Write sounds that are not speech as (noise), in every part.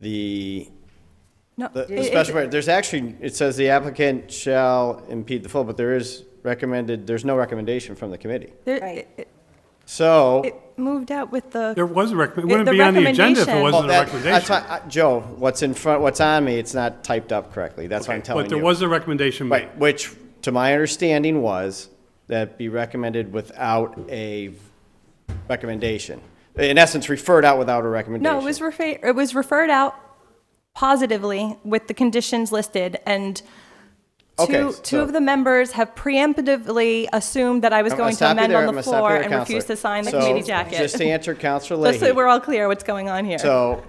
the, No, the it- the it- special, permit- there's actually, it says the applicant shall impede the flow, but there is recommended, there's no recommendation from the committee. there- Right. it- So. It moved out with There the, was a rec, it It- wouldn't the be on the agenda if it Well, recommendation- wasn't a that- that's recommendation. why- I- Joe, what's in front, what's on me, it's not typed up correctly, that's what I'm telling you. But there was a recommendation made. Right, which, to my understanding, was that be recommended without a recommendation. In essence, referred out without a recommendation. no, it was referred, it was referred out positively with the conditions listed, and Okay, two, two so- of the members have preemptively assumed that I was I'm going to stop you amend there, I'm on the gonna stop you floor there, and Counselor. refused to sign the So, committee jacket. Just to answer Counselor Just (laughs) so Leahy. we're all clear what's going on here. So,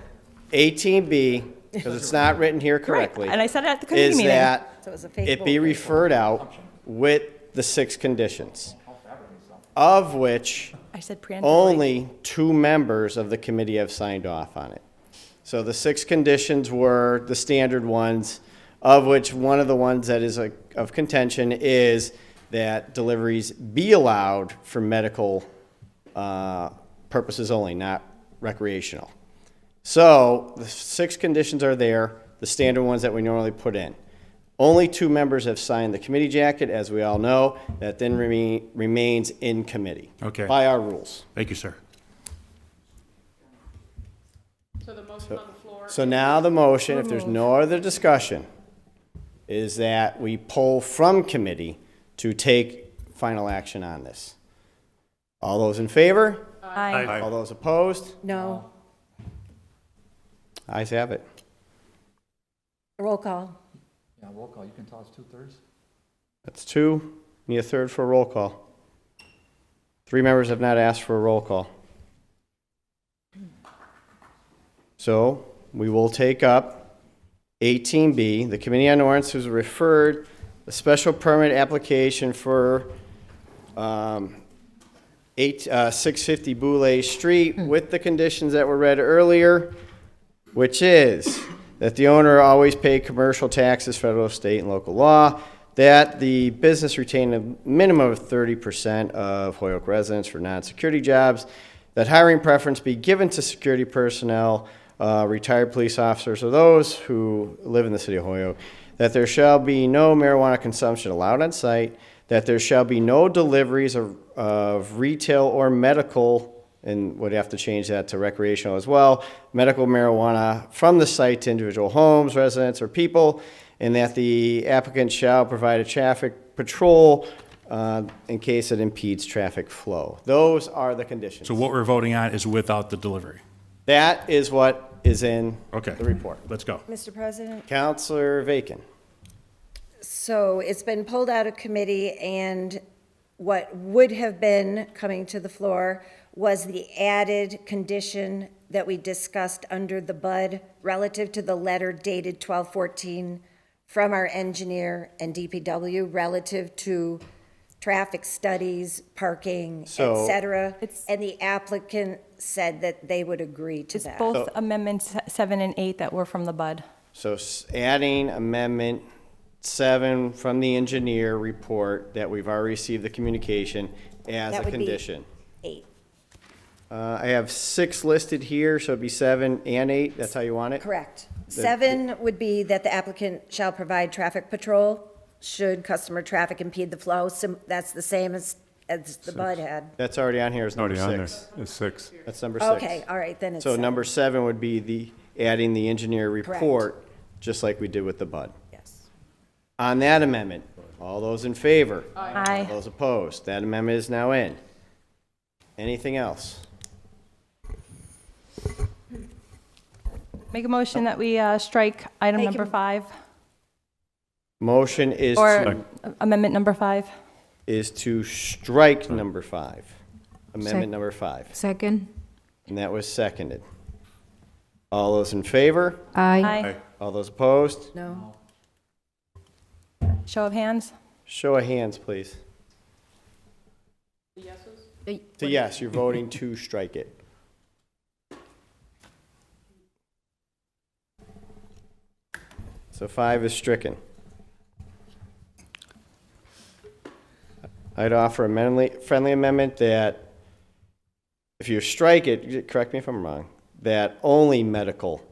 eighteen (laughs) B, because it's not written here correctly. and I said it at the committee meeting. Is that So it was a fake it vote, be right? referred out with the six conditions, of which I said preemptively. only two members of the committee have signed off on it. So the six conditions were the standard ones, of which one of the ones that is like, of contention is that deliveries be allowed for medical uh, purposes only, not recreational. So the six conditions are there, the standard ones that we normally put in. Only two members have signed the committee jacket, as we all know, that then remain- remains in committee. Okay. By our rules. Thank you, sir. So the motion on the floor, So now the motion, if there's no other discussion, is that we pull from committee to take final action on this. All those in favor? Aye. Aye. All those opposed? No, Ayes have it. roll call. Yeah, roll call, you can tell us two-thirds? That's two. Need a third for a roll call. Three members have not asked for a roll call. So we will take up 18B. The Committee on Ordinances referred a special permit application for um, eight, uh, 650 Boulay Street Mm. with the conditions that were read earlier, which is that the owner always pay commercial taxes, federal, state, and local law, that the business retain a minimum of 30% of Hoyoke residents for non-security jobs, that hiring preference be given to security personnel, uh, retired police officers, or those who live in the city of Hoyoke, that there shall be no marijuana consumption allowed on site, that there shall be no deliveries of, of retail or medical, and would have to change that to recreational as well, medical marijuana from the site to individual homes, residents, or people, and that the applicant shall provide a traffic patrol uh, in case it impedes traffic flow. Those are the conditions. So what we're voting on is without the delivery. That is what is in Okay. the report. Let's go. Mr. President? Counselor Vacan. So it's been pulled out of committee, and what would have been coming to the floor was the added condition that we discussed under the bud relative to the letter dated 1214 from our engineer and DPW relative to traffic studies, parking, et So- cetera. It's- And the applicant said that they would agree to It's that. both amendments seven and eight that were from the bud. So s- adding amendment seven from the engineer report that we've already received the communication as That a would be- condition. Eight, Uh, I have six listed here, so it'd be seven and eight, that's how you want it? correct. Seven would be that the applicant shall provide traffic patrol should customer traffic impede the flow. Sim- That's the same as, as the Bud had. That's already on here as number Already on there. six. It's six. That's number six. Okay, all right, then it's. So seven. number seven would be the, adding the engineer report, just like we did with the bud. Yes. On that amendment, all those in favor? Aye. All those opposed? That amendment is now in. Anything else? Make a motion that we uh, strike item Make number a- five, Motion is to or amendment number five. is to strike number five, amendment number five. Second? And that was seconded. All those in favor? Aye. Aye. All those opposed? No. Show of hands. Show of hands, please. the yeses? So yes, you're voting to strike it. So five is stricken. I'd offer a friendly, friendly amendment that if you strike it, correct me if I'm wrong, that only medical